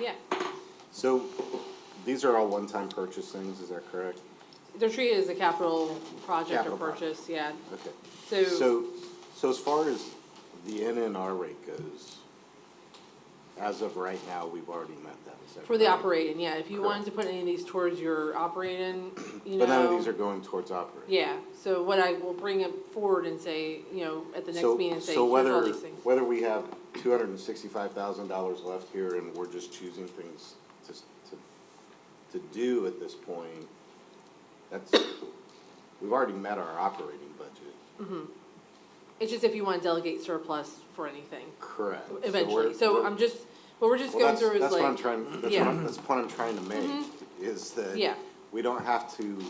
Yeah, So these are all one-time purchase things, is that correct? they're treated as a capital project or Capital project. purchase, yeah. Okay. So- So, so as far as the NNR rate goes, as of right now, we've already met that, is that For the correct? operating, yeah, if you wanted to put any of these towards your operating, you know. But none of these are going towards operating. Yeah, so what I will bring it forward and say, you know, at the next So- meeting and say, So here's all whether, these things. whether we have two hundred and sixty-five thousand dollars left here and we're just choosing things to, to, to do at this point, that's, we've already met our operating budget. It's just if you wanna delegate surplus for anything, Correct. So eventually, we're- so we're- I'm just, what we're just Well, going that's, through is like. that's what I'm trying, that's what yeah. Mm-hmm. I'm, that's the point I'm trying to make, is Yeah. that we don't have to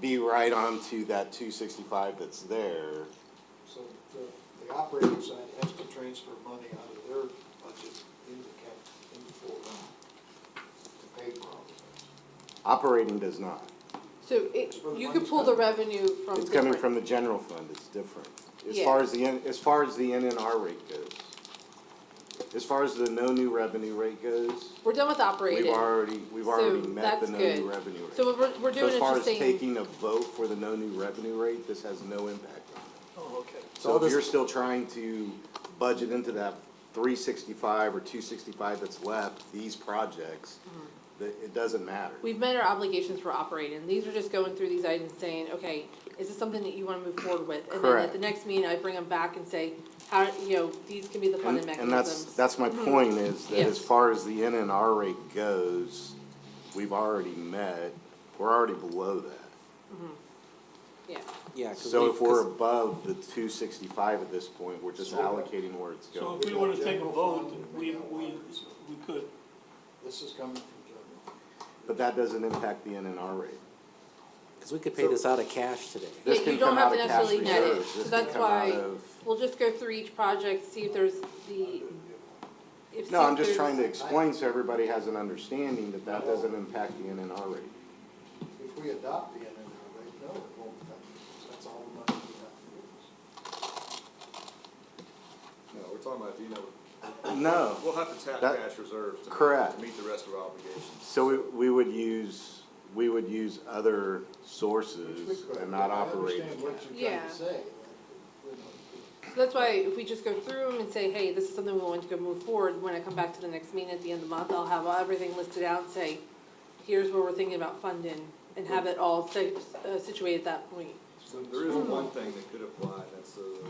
be right onto that two sixty-five that's there. So the, the operating side has to transfer money out of their budget into cap, into full to pay for all of Operating does not. So it, you could pull the revenue from It's coming different- from the general fund, it's different. As Yeah. far as the, N- as far as the NNR rate goes. As far as the no new revenue rate goes, We're done with operating. we've already, we've already So met the that's no good. new revenue rate. So what we're, we're So doing as is far as just saying, taking a vote for the no new revenue rate, this has no impact on it. Oh, okay. So if you're still trying to budget into that three sixty-five or two sixty-five that's left, these projects, that, it doesn't matter. we've met our obligations for operating. These are just going through these items saying, okay, is this something that you wanna move forward with? And then at Correct. the next meeting, I bring them back and say, how, you know, these can be the funding And, and that's, mechanisms. that's my point is that Yes. as far as the NNR rate goes, we've already met, we're already below that. Yeah, Yeah, 'cause So we- if we're 'cause- above the two sixty-five at this point, we're just So- allocating where it's So going. if we were to take a vote, we, we, we could. This is coming from general. fund. But that doesn't impact the NNR rate. Cause we could pay this out of cash today. Yeah, This you can don't come have out to of cash necessarily net it, reserves, so this can that's come out why, of. we'll just go through each project, see if there's the, if. No, see I'm if just there's- trying to explain so everybody has an understanding that that doesn't impact the NNR rate. If we adopt the NNR rate, no, it won't affect us. That's all the money we have to use. No, we're talking about, you know, No, we'll have to tap That- cash reserves to. correct. To meet the rest of our obligations. so we, we would use, we would use other Which sources we could. and not I operating. understand what you're trying Yeah. to say. So That's why if we just go through them and say, hey, this is something we want to go move forward, when I come back to the next meeting at the end of the month, I'll have everything listed out, and say, here's where we're thinking about funding, and have it all si- uh, situated at that point. So there is one thing that could apply, and that's uh, the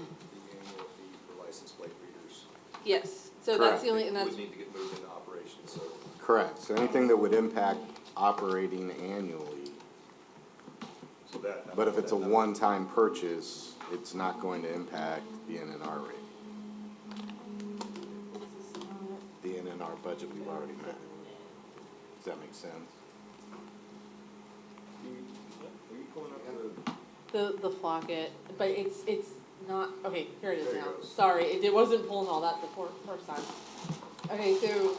annual fee for license plate readers. Yes, so that's Correct. the only, and that's, Would need to get moved into operations, so Correct, so anything that would impact operating annually, so that. but if it's a that- one-time purchase, it's not going to impact the NNR rate. The NNR budget we've already met. Does that make sense? Are you are you pulling up the, the, the Flocket, but it's, it's not, okay, here it is There it now. goes. Sorry, it it wasn't pulling all that the fir- first time. Okay, so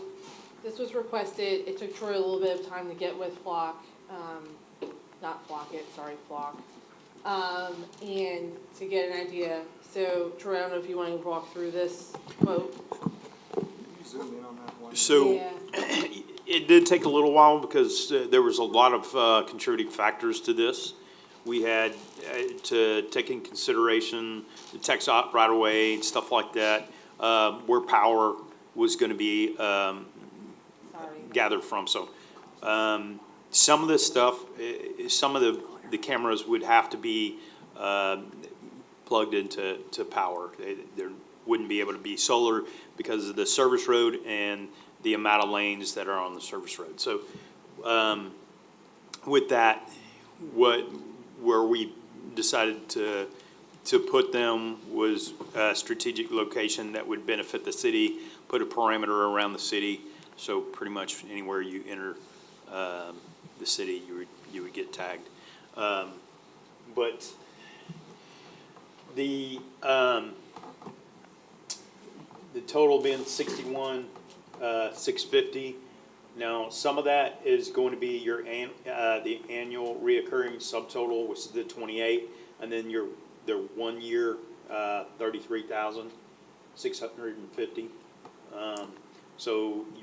this was requested, it took Troy a little bit of time to get with Flock, um, not Flocket, sorry, Flock. Um, and to get an idea, so Troy, I don't know if you wanna walk through this quote? can you zoom in on that one? So Yeah. it did take a little while because uh, there was a lot of uh, contributing factors to this. We had uh, to take in consideration the Texot right away and stuff like that, uh, where power was going to be um, Sorry. gathered from, so. um, Some of this stuff, eh, eh, some of the, the cameras would have to be um, plugged into, to power. They- There wouldn't be able to be solar because of the service road and the amount of lanes that are on the service road. So um, with that, what, where we decided to, to put them was a strategic location that would benefit the city, put a perimeter around the city, so pretty much anywhere you enter, um, the city, you would, you would get tagged. Um, but the, um, the total being sixty-one, uh, six fifty. Now, some of that is going to be your an, uh, the annual reoccurring subtotal, which is the twenty-eight, and then your, their one-year, uh, thirty-three thousand, six hundred and fifty. Um, so